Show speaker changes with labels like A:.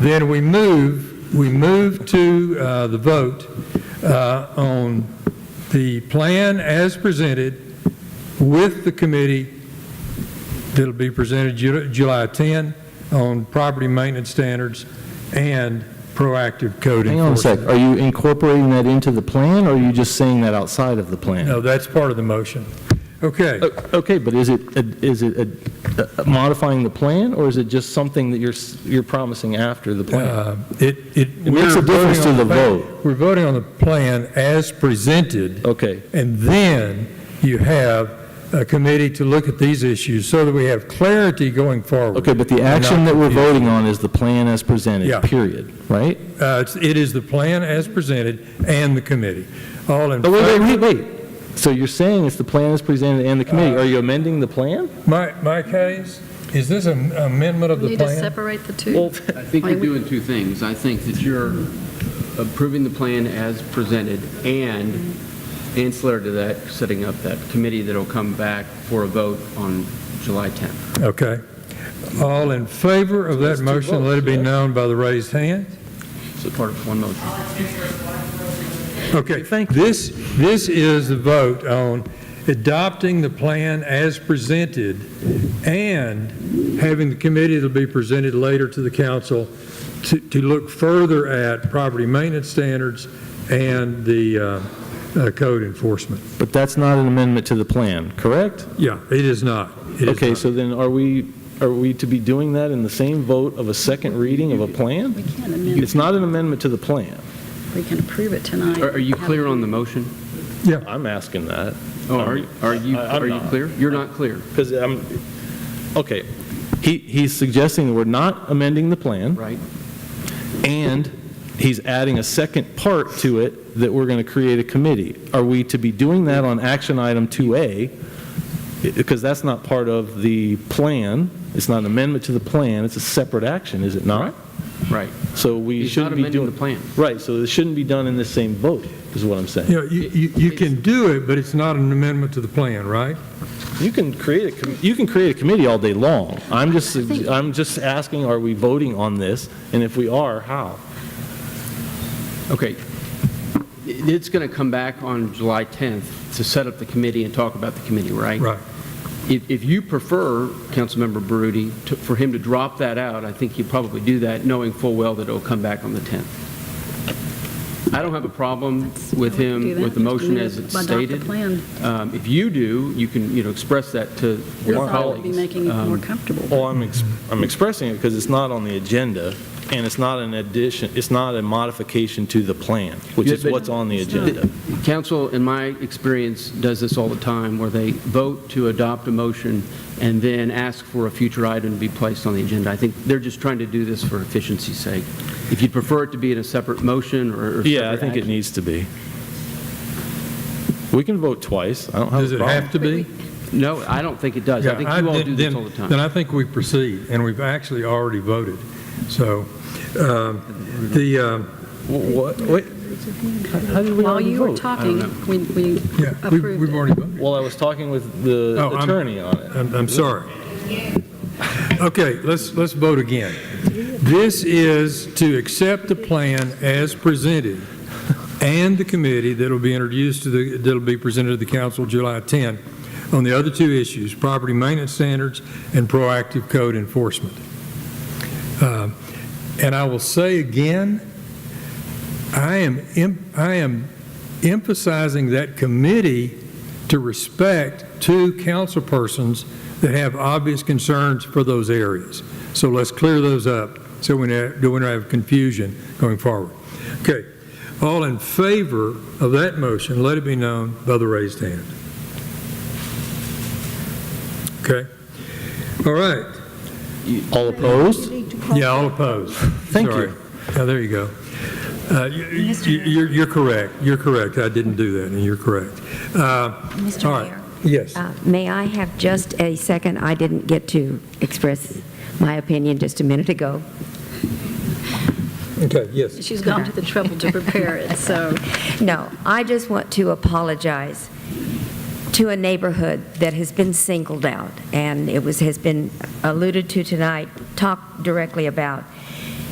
A: Then we move, we move to uh, the vote uh, on the plan as presented with the committee that'll be presented Ju- July 10 on property maintenance standards and proactive code
B: Hang on a sec,
A: enforcement.
B: are you incorporating that into the plan, or are you just saying that outside of the plan?
A: No, that's part of the motion. Okay,
B: O- Okay, but is it, is it uh, modifying the plan, or is it just something that you're, s- you're promising after the plan?
A: uh, it, it.
B: It makes a
A: we're
B: difference
A: voting
B: to
A: on
B: the
A: plan-
B: vote.
A: We're voting on the plan as presented.
B: Okay,
A: And then you have a committee to look at these issues so that we have clarity going forward.
B: okay, but the action that we're voting on is the plan as
A: Yeah.
B: presented, period, right?
A: Uh, it's- It is the plan as presented and the committee. All in
B: Oh, wait,
A: favor?
B: wait, wait, wait. So you're saying it's the plan as presented and the committee,
A: Uh,
B: are you amending the plan?
A: My, my case, is this an amendment of
C: We
A: the
C: need to
A: plan?
C: separate the two.
D: I think you're doing two things. I think that you're approving the plan as presented and ancillary to that, setting up that committee that'll come back for a vote on July 10th.
A: Okay. All in favor of that motion, let it be known by the raised hand.
D: So part of one motion.
A: Okay. This, this is the vote on adopting the plan as presented and having the committee that'll be presented later to the council to, to look further at property maintenance standards and the uh, uh, code enforcement.
B: But that's not an amendment to the plan, correct?
A: Yeah, it is not. It is
B: Okay,
A: not.
B: so then are we, are we to be doing that in the same vote of a second reading of a plan?
C: We can't amend,
B: It's not an amendment to the plan.
C: we can approve it tonight.
D: Are are you clear on the motion?
B: I'm asking that,
D: Oh, Are are you,
B: I- I'm
D: are you
B: not.
D: clear? You're not clear.
B: because I'm, okay, he, he's suggesting that we're not amending the plan,
D: Right.
B: and he's adding a second part to it that we're going to create a committee. Are we to be doing that on action item 2A? I- Because that's not part of the plan, it's not an amendment to the plan, it's a separate action, is it not?
D: Right.
B: So we
D: He's not
B: shouldn't be
D: amending the
B: doing,
D: plan.
B: right, so this shouldn't be done in the same vote, is what I'm saying.
A: You know, you, you you can do it, but it's not an amendment to the plan, right?
B: You can create a, com- you can create a committee all day long. I'm just, I'm just asking, are we voting on this? And if we are, how?
D: Okay. It- It's going to come back on July 10th to set up the committee and talk about the committee, right?
A: Right.
D: If, if you prefer, Councilmember Baroody, to- for him to drop that out, I think he'd probably do that, knowing full well that it'll come back on the 10th. I don't have a problem with him, with the motion as it's
C: Adopt the
D: stated.
C: plan.
D: Um, If you do, you can, you know, express that to
C: We
D: your
C: thought it would be
D: colleagues.
C: making it more
D: Um,
C: comfortable.
B: Well, I'm, ex- I'm expressing it because it's not on the agenda and it's not an addition, it's not a modification to the plan, which
D: Yeah,
B: is
D: but-
B: what's on the agenda.
D: Council, in my experience, does this all the time, where they vote to adopt a motion and then ask for a future item to be placed on the agenda. I think they're just trying to do this for efficiency's sake. If you'd prefer it to be in a separate motion or... or
B: Yeah, I
D: separate
B: think it
D: action-
B: needs to be. We can vote twice. I don't have
A: Does
B: a
A: it have
B: problem.
A: to be?
D: No, I don't think it does. I think
A: Yeah,
D: you all
A: then-
D: do this
A: then-
D: all the
A: Then
D: time.
A: I think we proceed, and we've actually already voted. So, um, the, um,
B: What, wait, how did we
C: While
B: already
C: you were
B: vote?
C: talking, we, we
A: yeah, we-
C: approved
A: we've
C: it.
A: already voted.
B: Well, I was talking with the
A: Oh, I'm-
B: attorney on it.
A: I'm, I'm sorry. Okay, let's, let's vote again. This is to accept the plan as presented and the committee that'll be introduced to the, that'll be presented to the council July 10 on the other two issues, property maintenance standards and proactive code enforcement. Um, And I will say again, I am, em- I am emphasizing that committee to respect two councilpersons that have obvious concerns for those areas. So let's clear those up so we don't we don't have confusion going forward. Okay, all in favor of that motion, let it be known by the raised hand. Okay, all right,
B: All opposed?
A: yeah, all opposed.
B: Thank you.
A: Sorry. Yeah, there you go. Uh, you- you- You're, you're correct, you're correct, I didn't do that, and you're correct. Uh, All
E: Mr.
A: right.
E: Mayor,
A: Yes.
E: uh, may I have just a second? I didn't get to express my opinion just a minute ago.
A: Okay, yes.
C: She's gone to the trouble to prepare it, so
E: No, I just want to apologize to a neighborhood that has been singled out, and it was, has been alluded to tonight, talked directly about.